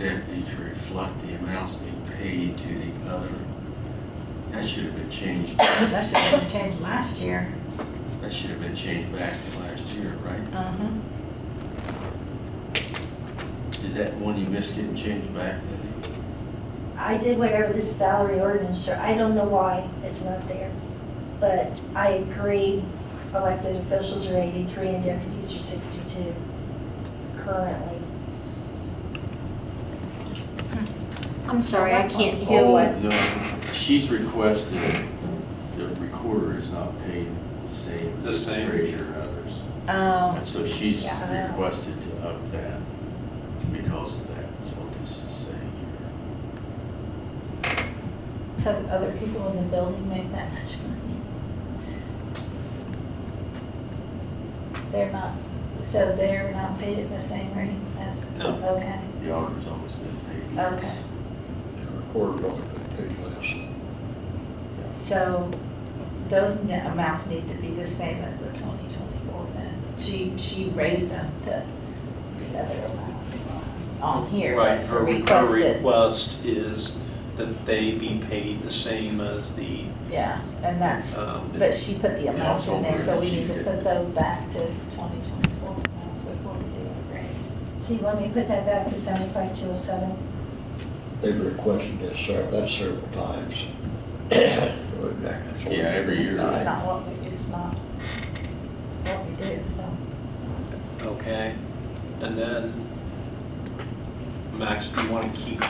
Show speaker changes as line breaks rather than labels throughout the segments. deputy to reflect the amounts being paid to the other. That should have been changed,
That should have been changed last year.
that should have been changed back to last year, right?
Uh-huh.
Is that one you missed getting changed back?
I did whatever this salary ordinance, show- I don't know why it's not there. But I agree, elected officials are 83 and deputies are 62 currently.
I'm sorry, I can't hear
Oh,
what.
No, she's requested, the recorder is not paid the same
The
as the
same.
treasurer and others.
Oh,
And so she's
Yeah.
requested to up that because of that, is what this is saying here.
because other people in the building make that much money. They're not, so they're not paid at the same rate as,
No.
okay.
The auditor's always been paid.
Okay.
Recorder only been paid less.
So those n- amounts need to be the same as the twenty twenty-four then. She, she raised them to the other amounts on here.
Right, her, her
Requested,
request is that they be paid the same as the,
yeah, and that's,
um,
but she put the amounts in there, so we need to
Yeah.
put those back to twenty twenty-four amounts before we do a raise.
So you want me to put that back to 75207?
They've requested this several, that's several times. That's what-
Yeah, every year.
It's just
right.
not what we, it's not what we do, so.
okay? And then, Max, do you want to keep,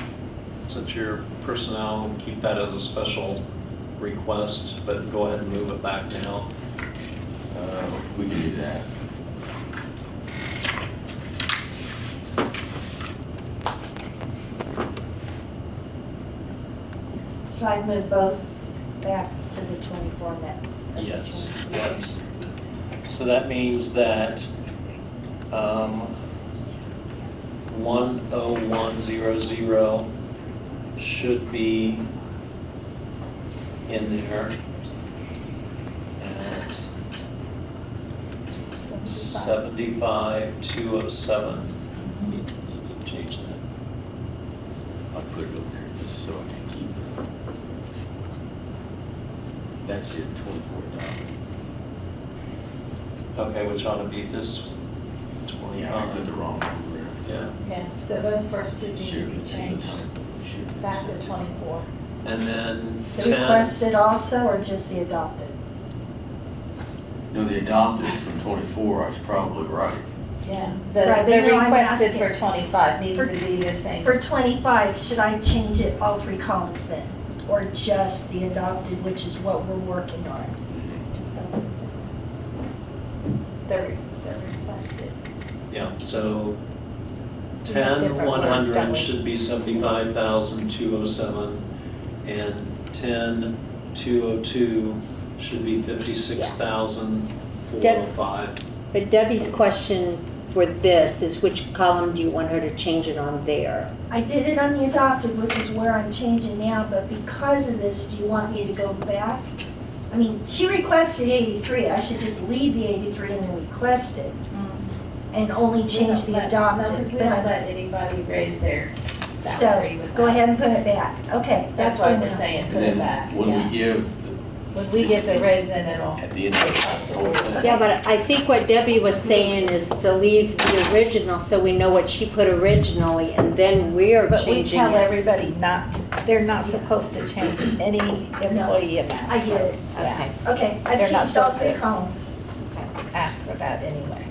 since you're personnel, keep that as a special request, but go ahead and move it back now?
Uh, We can do that.
Should I move both back to the 24 next?
Yes, yes. So that means that um, 10100 should be in there at 75207. You need to Change that.
I'll put it over here just so I can keep it. That's it, twenty-four dollars.
Okay, which ought to be this 20.
Yeah, I put the wrong number in.
Yeah.
Yeah, so those first two
It
need
should
to
have
be
been
changed back to twenty-four.
And then 10.
The requested also or just the adopted?
No, the adopted from twenty-four, I was probably right.
Yeah,
Right,
the,
they
the
know I'm
requested
asking.
for twenty-five needs
For-
to be the same.
For 25, should I change it all three columns then? Or just the adopted, which is what we're working on?
The, re- the requested.
Yeah, so
We have
ten,
different
one
words, don't
hundred
we?
should be seventy-five thousand, two oh seven, and ten, two oh two should be fifty-six thousand, four oh five.
But Debbie's question for this is which column do you want her to change it on there?
I did it on the adopted, which is where I'm changing now, but because of this, do you want me to go back? I mean, she requested 83, I should just leave the 83 and then request it and only change
Hmm. We
the
don't let- no, 'cause
adopted.
we
but
don't
I-
let anybody raise their salary
So,
with
go
that.
ahead and put it back, okay.
That's why
good
we're
enough.
saying
And
put it
then
back,
When
yeah.
we give, the-
When we get the raise, then it'll.
at the end of the whole thing.
Yeah, but I think what Debbie was saying is to leave the original so we know what she put originally and then we're
But we
changing
tell
it.
everybody not, to- they're not supposed to change any employee amounts.
I get it,
Yeah,
Okay.
okay,
They're not
I've changed all
supposed
three
to.
columns.
ask for that anyway.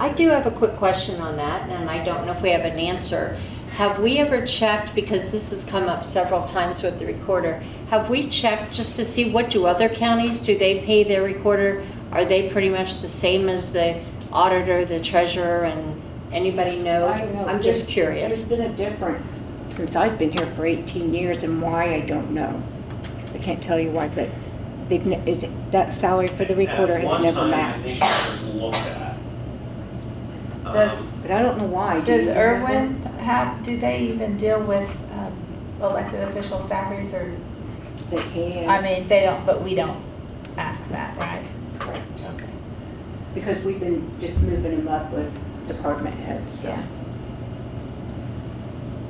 I do have a quick question on that and I don't know if we have an answer. Have we ever checked, because this has come up several times with the recorder, have we checked just to see what do other counties, do they pay their recorder? Are they pretty much the same as the auditor, the treasurer and anybody know?
I don't know.
I'm
There's-
just curious.
There's been a difference since I've been here for 18 years and why, I don't know. I can't tell you why, but they've, ne- it- that salary for the recorder has never matched.
At one time, I think it was looked at.
Does-
Um,
But I don't know why. Do
Does
you remember?
Irwin, how, do they even deal with um, elected official salaries or,
They pay,
I
uh,
mean, they don't, but we don't ask that, right? Okay.
because we've been just moving them up with department heads, so.
Yeah.